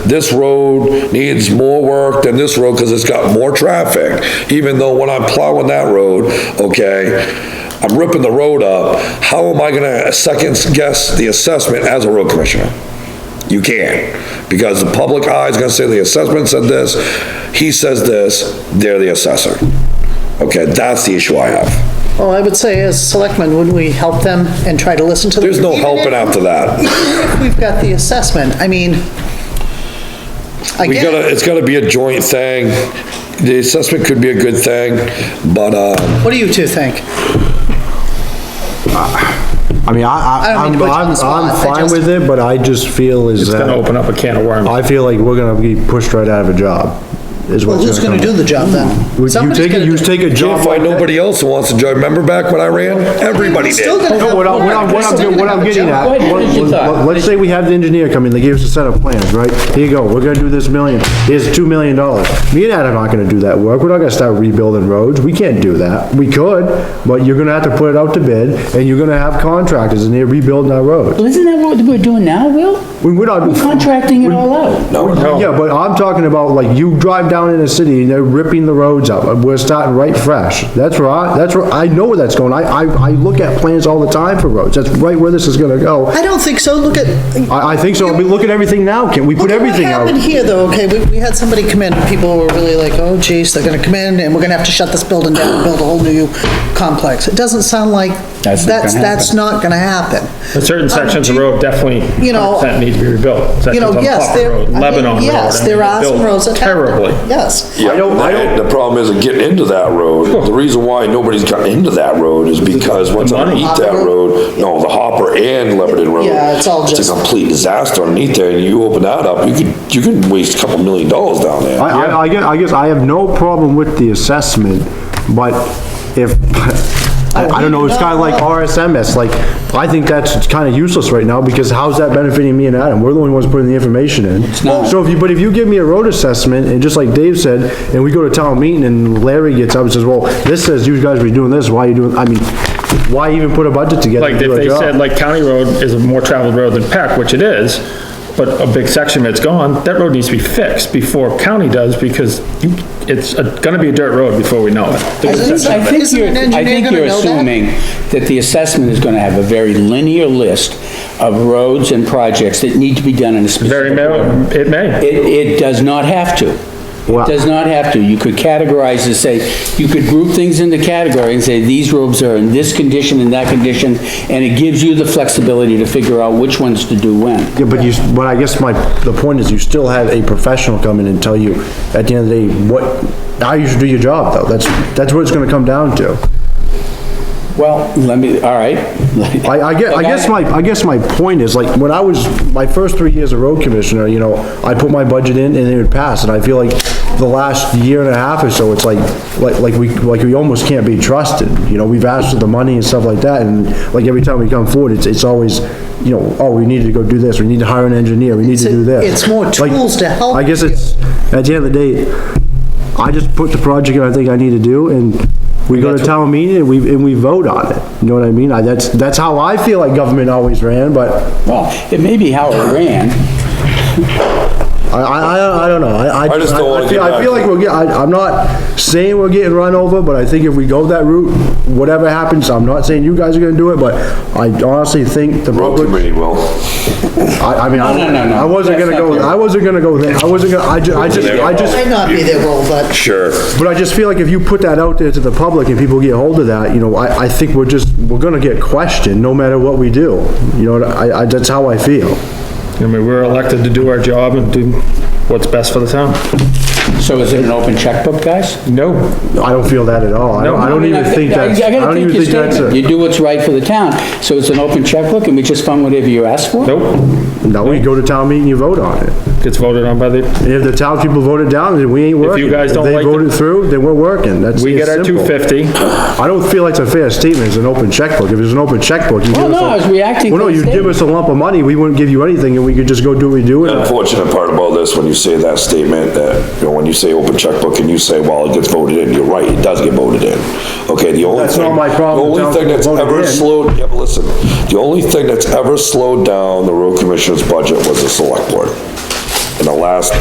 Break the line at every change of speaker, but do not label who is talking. this road needs more work than this road, because it's got more traffic, even though when I'm plowing that road, okay, I'm ripping the road up, how am I gonna second guess the assessment as a road commissioner? You can't, because the public eye is gonna say the assessment said this, he says this, they're the assessor. Okay, that's the issue I have.
Well, I would say as selectmen, wouldn't we help them and try to listen to them?
There's no helping after that.
Even if we've got the assessment, I mean, I
We
get it.
gotta, it's gotta be a joint thing. The assessment could be a good thing, but, uh,
What do you two think?
I mean, I, I,
I don't mean to put
I'm,
you on
I'm
the spot, I
I'm fine
just-
with it, but I just feel is
It's gonna
that,
open up a can of worms.
I feel like we're gonna be pushed right out of a job, is
Well,
what's
who's gonna
gonna
do
come.
the job then?
Would You
Somebody's
take,
gonna
it- you
do-
take a
can't
job
find
like that.
nobody else who wants to join. Remember back when I ran? Everybody
We're still
did.
gonna
No,
have
what I'm, what I'm,
work.
what
We're
I'm,
still
what
gonna
I'm
have a
getting
job.
at, what- what- let's say we have the engineer come in, they give us a set of plans, right? Here you go, we're gonna do this million, here's two million dollars. Me and Ed are not gonna do that work, we're not gonna start rebuilding roads, we can't do that. We could, but you're gonna have to put it out to bid, and you're gonna have contractors, and they're rebuilding our roads.
Well, Isn't that what we're doing now, Will?
We- We're not.
We're contracting it all out.
Yeah, but I'm talking about, like, you drive down in a city and they're ripping the roads up, and we're starting right fresh. That's where I, that's where, I know where that's going, I, I, I look at plans all the time for roads, that's right where this is gonna go.
I don't think so, look at,
I, I think so, I mean, look at everything now, can we
Look
put
at
everything out?
What happened here, though, okay, we, we had somebody come in, and people were really like, oh geez, they're gonna come in, and we're gonna have to shut this building down and build a whole new complex. It doesn't sound like,
That's
that's,
not gonna
that's
happen.
not gonna happen.
But certain sections of
Um, do-
road definitely
you know,
100% need to be rebuilt.
You
Sections
know,
on
yes,
Poplar
there,
Road,
I mean,
Lebanon Road.
yes,
I mean,
there are
built
some roads that. happen.
Terribly.
Yes.
Yeah,
I don't- I
and The problem isn't getting into that road. The reason why nobody's gotten into that road is because once
The money.
underneath that road, no, the Hopper and Lebanon Road.
Yeah, it's all
It's
just-
a complete disaster underneath there, and you open that up, you could, you could waste a couple million dollars down there.
I, I, I guess, I guess I have no problem with the assessment, but if, I, I don't know, it's kinda like RSMS, like, I think that's kinda useless right now, because how's that benefiting me and Adam? We're the only ones putting the information in.
not.
So if you, but if you give me a road assessment, and just like Dave said, and we go to town meeting and Larry gets up and says, well, this says you guys were doing this, why are you doing, I mean, why even put a budget together?
Like,
to do
if
a
they
job?
said, like, County Road is a more traveled road than Peck, which it is, but a big section that's gone, that road needs to be fixed before county does, because you- it's a- gonna be a dirt road before we know it.
I
Isn't-
think- I think
isn't
you're,
an
I
engineer
think
gonna
you're
know that?
assuming that the assessment is gonna have a very linear list of roads and projects that need to be done in a
Very
specific.
may, it may.
It, it does not have to.
Wow.
It does not have to. You could categorize and say, you could group things into category and say, these roads are in this condition and that condition, and it gives you the flexibility to figure out which ones to do when.
Yeah, but you, but I guess my, the point is you still have a professional come in and tell you at the end of the day, what, how you should do your job though. That's, that's what it's gonna come down to.
Well, let me, all right.
I, I guess, I guess my, I guess my point is like, when I was, my first three years of road commissioner, you know, I put my budget in and it would pass. And I feel like the last year and a half or so, it's like, like, like we, like we almost can't be trusted. You know, we've asked for the money and stuff like that. And like every time we come forward, it's, it's always, you know, oh, we needed to go do this, we need to hire an engineer, we need to do this.
It's more
Like,
tools to help
I guess it's, at the end of the day, I just put the project that I think I need to do, and we go to town meeting and we, and we vote on it. You know what I mean? I, that's, that's how I feel like government always ran, but
Well, it may be how it ran,
I, I, I- I don't know, I, I.
I just don't wanna
feel-
get back
I feel
to-
like we're getting, I, I'm not saying we're getting run over, but I think if we go that route, whatever happens, I'm not saying you guys are gonna do it, but I honestly think the
Road
public.
committee will.
I, I mean,
No, no, no, no.
I wasn't
That's
gonna
not
go,
fair.
I wasn't gonna go there, I wasn't gonna, I ju, I just, I just.
Might not be their role, but
Sure.
But I just feel like if you put that out there to the public and people get hold of that, you know, I, I think we're just, we're gonna get questioned no matter what we do. You know, I, I, that's how I feel.
I mean, we're elected to do our job and do what's best for the town.
So is it an open checkbook, guys?
No,
I don't feel that at all. I don't, I don't even think that's, I
gotta
don't
take
even
your
think that's
statement. You
a,
do what's right for the town, so it's an open checkbook, and we just fund whatever you ask for?
nope,
no, you go to town meeting, you vote on it.
gets voted on by the,
And if the town people vote it down, then we ain't working.
guys don't like
If
the-
they vote it through, then we're working, that's.
we
it's
get our
simple.
250.
I don't feel like it's a fair statement, it's an open checkbook. If it's an open checkbook, you give us.
Well, no,
a-
I was reacting
Well,
to
no,
the
you give
statement.
us a lump of money, we wouldn't give you anything and we could just go do what we do.
The
and-
unfortunate part about this, when you say that statement, that, you know, when you say open checkbook and you say, well, it gets voted in, you're right, it does get voted in. Okay, the only
That's
thing.
not my problem,
The
town
only thing that's
voted
ever
in.
slowed, yeah, but listen, the only thing that's ever slowed down the road commissioner's budget was the select board. in the last